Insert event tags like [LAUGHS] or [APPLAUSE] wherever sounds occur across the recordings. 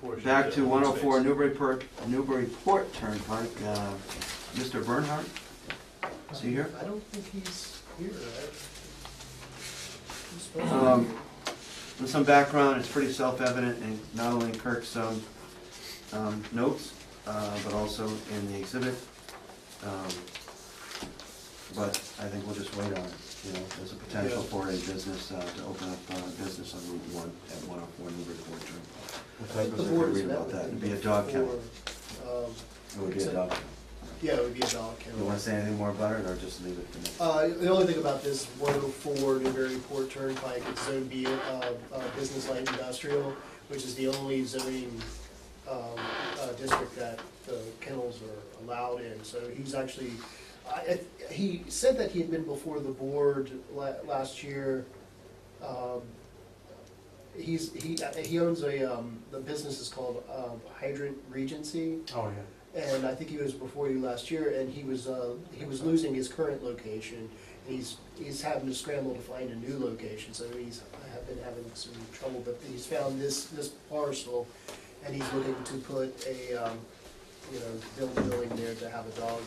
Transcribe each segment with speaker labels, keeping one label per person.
Speaker 1: portion.
Speaker 2: Back to
Speaker 1: of
Speaker 2: one oh four
Speaker 1: space.
Speaker 2: Newburyport, Newburyport Turnpike, uh, Mr. Bernhardt? Is he here?
Speaker 3: I don't think he's here.
Speaker 2: Um, With some background, it's pretty self-evident in not only in Kirk's um, um, notes, uh, but also in the exhibit. Um, But I think we'll just wait on, it, you know, there's a potential
Speaker 1: Yeah.
Speaker 2: for a business, uh, to open up uh business on Route One at one oh four Newburyport Turnpike. I
Speaker 3: The
Speaker 2: was
Speaker 3: board
Speaker 2: gonna
Speaker 3: is
Speaker 2: read about that, it'd be a dog kennel, it would be a dog. kennel.
Speaker 3: um, Yeah, it would be a dog
Speaker 2: You wanna
Speaker 3: kennel.
Speaker 2: say anything more about it, or just leave it for next?
Speaker 3: Uh, the only thing about this one oh four Newburyport Turnpike, it's zone B, uh, uh, business light industrial, which is the only zoning, um, uh, district that the kennels are allowed in. So he's actually, I, I- he said that he had been before the board la- last year. Um, He's, he, he owns a, um, the business is called, um, Hydrant Regency.
Speaker 4: Oh,
Speaker 3: and I think he was before you last year, and he was, uh, he was losing his current location. and He's, he's having to scramble to find a new location, so he's have been having some trouble, but he's found this, this parcel, and he's looking to put a, um, you know, build a building there to have a dog.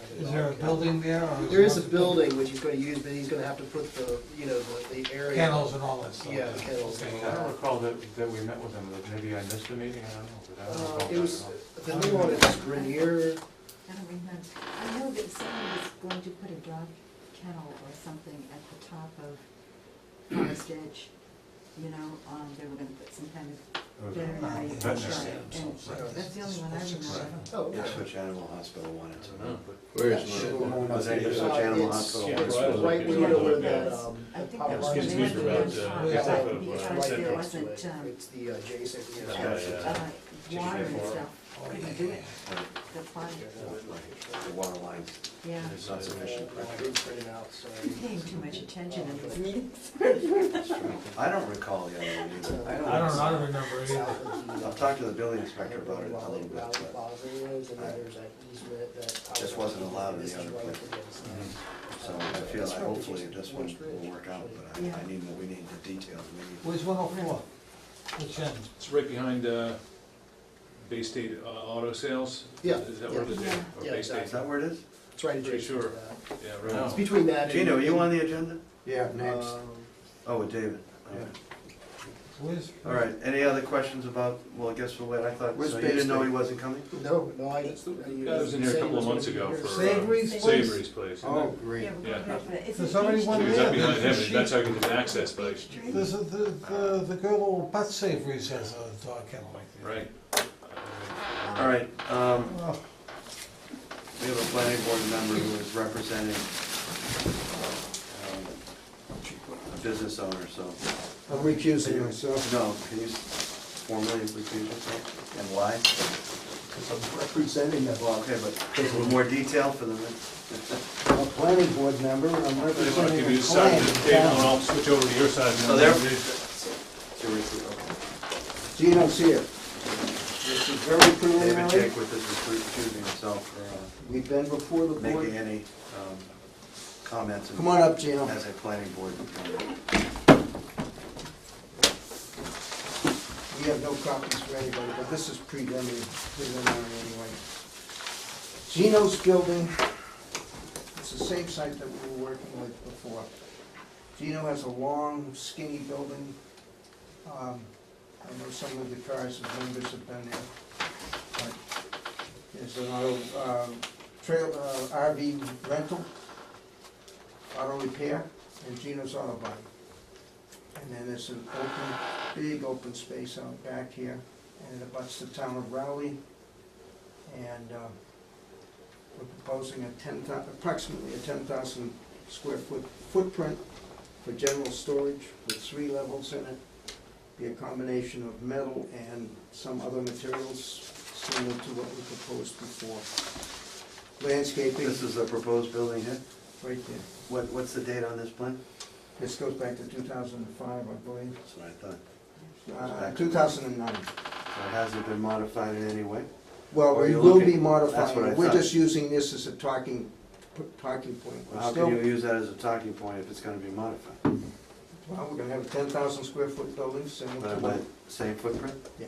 Speaker 3: have
Speaker 4: Is there a
Speaker 3: dog kennel.
Speaker 4: building there? or
Speaker 3: There is a building which he's gonna use, but he's gonna have to put the, you know, the, the area.
Speaker 4: Kennels and all that stuff?
Speaker 3: Yeah, the kennels.
Speaker 4: Okay.
Speaker 5: I don't recall that, that we met with them, but maybe I missed the meeting, I don't know, but I don't
Speaker 3: Uh,
Speaker 5: recall that
Speaker 3: it was,
Speaker 5: at all.
Speaker 3: the new one is Grenier,
Speaker 6: I don't remember. I know that someone was going to put a dog kennel or something at the top of Forest Edge. You know, um, they were gonna put some kind of veterinary.
Speaker 5: Veterinary,
Speaker 6: right, and That's the only one I remember.
Speaker 3: oh,
Speaker 2: Yeah,
Speaker 3: okay.
Speaker 2: Switch Animal Hospital wanted to. know.
Speaker 7: Where is my,
Speaker 2: Was that Ipswich
Speaker 3: Uh,
Speaker 2: Animal
Speaker 3: it's-
Speaker 2: Hospital?
Speaker 1: yeah,
Speaker 2: wanted to
Speaker 1: right.
Speaker 2: know?
Speaker 3: Right, we
Speaker 1: Yeah.
Speaker 3: know where
Speaker 1: Yeah.
Speaker 3: that,
Speaker 2: uh,
Speaker 3: um,
Speaker 6: I think
Speaker 3: power
Speaker 6: that was
Speaker 1: Yeah,
Speaker 6: the
Speaker 1: it's
Speaker 6: name of
Speaker 1: used
Speaker 6: the
Speaker 1: around,
Speaker 6: village
Speaker 1: uh,
Speaker 6: hall,
Speaker 4: yeah.
Speaker 6: right,
Speaker 1: Yeah.
Speaker 6: because there
Speaker 1: Yeah.
Speaker 6: wasn't, um,
Speaker 3: It's the
Speaker 2: uh,
Speaker 3: adjacent,
Speaker 2: Yeah.
Speaker 3: yeah.
Speaker 6: uh, water and
Speaker 1: Four.
Speaker 6: stuff. Couldn't do it, the fun,
Speaker 2: The water lines,
Speaker 6: yeah.
Speaker 2: it's not sufficient.
Speaker 3: I didn't print it out, so.
Speaker 6: I'm
Speaker 2: uh,
Speaker 6: Paying too much attention in those meetings.
Speaker 2: I don't recall the other one either.
Speaker 4: I don't, I don't remember
Speaker 3: South
Speaker 4: either.
Speaker 3: of the, uh,
Speaker 2: I'll talk to the building inspector about
Speaker 3: Valley
Speaker 2: it a little bit,
Speaker 3: Valley
Speaker 2: but
Speaker 3: Plaza is, and then there's that easement that.
Speaker 2: This wasn't allowed in the
Speaker 3: This is
Speaker 2: other
Speaker 3: right
Speaker 2: place. Mm-hmm.
Speaker 3: against that.
Speaker 2: so I feel like hopefully this one will work out, but I, I
Speaker 6: Yeah.
Speaker 2: need, more- we need the details, we need.
Speaker 4: Where's one oh four? Which end?
Speaker 1: It's right behind, uh, Bay State uh, Auto Sales?
Speaker 3: Yeah.
Speaker 1: Is that where it is?
Speaker 6: Yeah.
Speaker 1: Or
Speaker 3: Yeah,
Speaker 1: Bay State?
Speaker 2: Is that where it is?
Speaker 3: It's right
Speaker 1: Pretty
Speaker 3: adjacent to
Speaker 1: sure.
Speaker 3: that.
Speaker 1: Yeah,
Speaker 5: No.
Speaker 1: right.
Speaker 3: It's between that and.
Speaker 2: Gino, you on the agenda?
Speaker 7: yeah, next.
Speaker 3: Um,
Speaker 2: Oh, with David. All right.
Speaker 4: Where's?
Speaker 2: All right, any other questions about, well, I guess we'll wait, I thought,
Speaker 7: Where's
Speaker 2: so you didn't know
Speaker 7: Bay
Speaker 2: he wasn't coming?
Speaker 3: No, no, I.
Speaker 1: That's the-
Speaker 3: you-
Speaker 1: Guy was in here a
Speaker 3: saying
Speaker 1: couple of
Speaker 3: it's
Speaker 1: months
Speaker 3: gonna
Speaker 1: ago
Speaker 3: be
Speaker 1: for. uh,
Speaker 4: Savory's place?
Speaker 1: Savory's Place.
Speaker 7: Oh, great.
Speaker 6: Yeah, we're
Speaker 1: Yeah.
Speaker 6: going back to that. It's
Speaker 4: There's
Speaker 6: an
Speaker 4: already
Speaker 6: H
Speaker 4: one
Speaker 6: tree.
Speaker 1: Because up
Speaker 4: there.
Speaker 1: behind him, that's how you get access, but,
Speaker 6: H tree.
Speaker 4: There's a, the, the, the good old Butt Savory's has a dog kennel like that.
Speaker 1: right.
Speaker 2: All right, um,
Speaker 4: Well,
Speaker 2: we have a planning board member who is representing um, a business owner, so.
Speaker 7: I'm recusing myself.
Speaker 2: No, can you formally recuse yourself, and why?
Speaker 7: Because I'm representing a,
Speaker 2: Well, okay, but a little more detail for the [LAUGHS] minute.
Speaker 7: a planning board member, and I'm
Speaker 1: They want to
Speaker 7: representing
Speaker 1: give you
Speaker 7: a
Speaker 1: the side of
Speaker 7: client.
Speaker 1: the table, and I'll switch over to your side. and
Speaker 3: Oh,
Speaker 2: So
Speaker 1: then-
Speaker 7: Gino's here. This is very
Speaker 2: David
Speaker 7: preliminary.
Speaker 2: Jakewith is recusing himself for
Speaker 7: We've been before the
Speaker 2: uh, making
Speaker 7: board.
Speaker 2: any um, comments. and-
Speaker 7: Come on up, Gino.
Speaker 2: As a planning board. member.
Speaker 7: We have no copies for anybody, but this is preliminary, preliminary anyway. Gino's building, it's the same site that we were working with before. Gino has a long skinny building. Um, I know some of the cars and members have been there. but There's an auto, um, trail, uh, RV rental, auto repair, and Gino's auto body. And then there's an open big open space out back here, and it abuts the town of Rowley. And uh, we're proposing a ten thou, approximately a ten thousand square foot footprint for general storage with three levels in it. Be a combination of metal and some other materials similar to what we proposed before. Landscaping,
Speaker 2: This is a proposed building here.
Speaker 7: right there.
Speaker 2: What, what's the date on this plan?
Speaker 7: This goes back to two thousand and five, I believe,
Speaker 2: That's what I thought.
Speaker 7: uh, two thousand and nine.
Speaker 2: So it hasn't been modified in any way?
Speaker 7: Well,
Speaker 2: Or
Speaker 7: we
Speaker 2: you
Speaker 7: will
Speaker 2: look
Speaker 7: be
Speaker 2: at- that's
Speaker 7: modifying
Speaker 2: what I
Speaker 7: it, we're
Speaker 2: thought.
Speaker 7: just using this as a talking, p- talking point.
Speaker 2: Well,
Speaker 7: We're
Speaker 2: How
Speaker 7: still-
Speaker 2: can you use that as a talking point if it's gonna be modified?
Speaker 7: Well, we're gonna have a ten thousand square foot building similar to
Speaker 2: But
Speaker 7: what,
Speaker 2: with same footprint?
Speaker 7: yeah,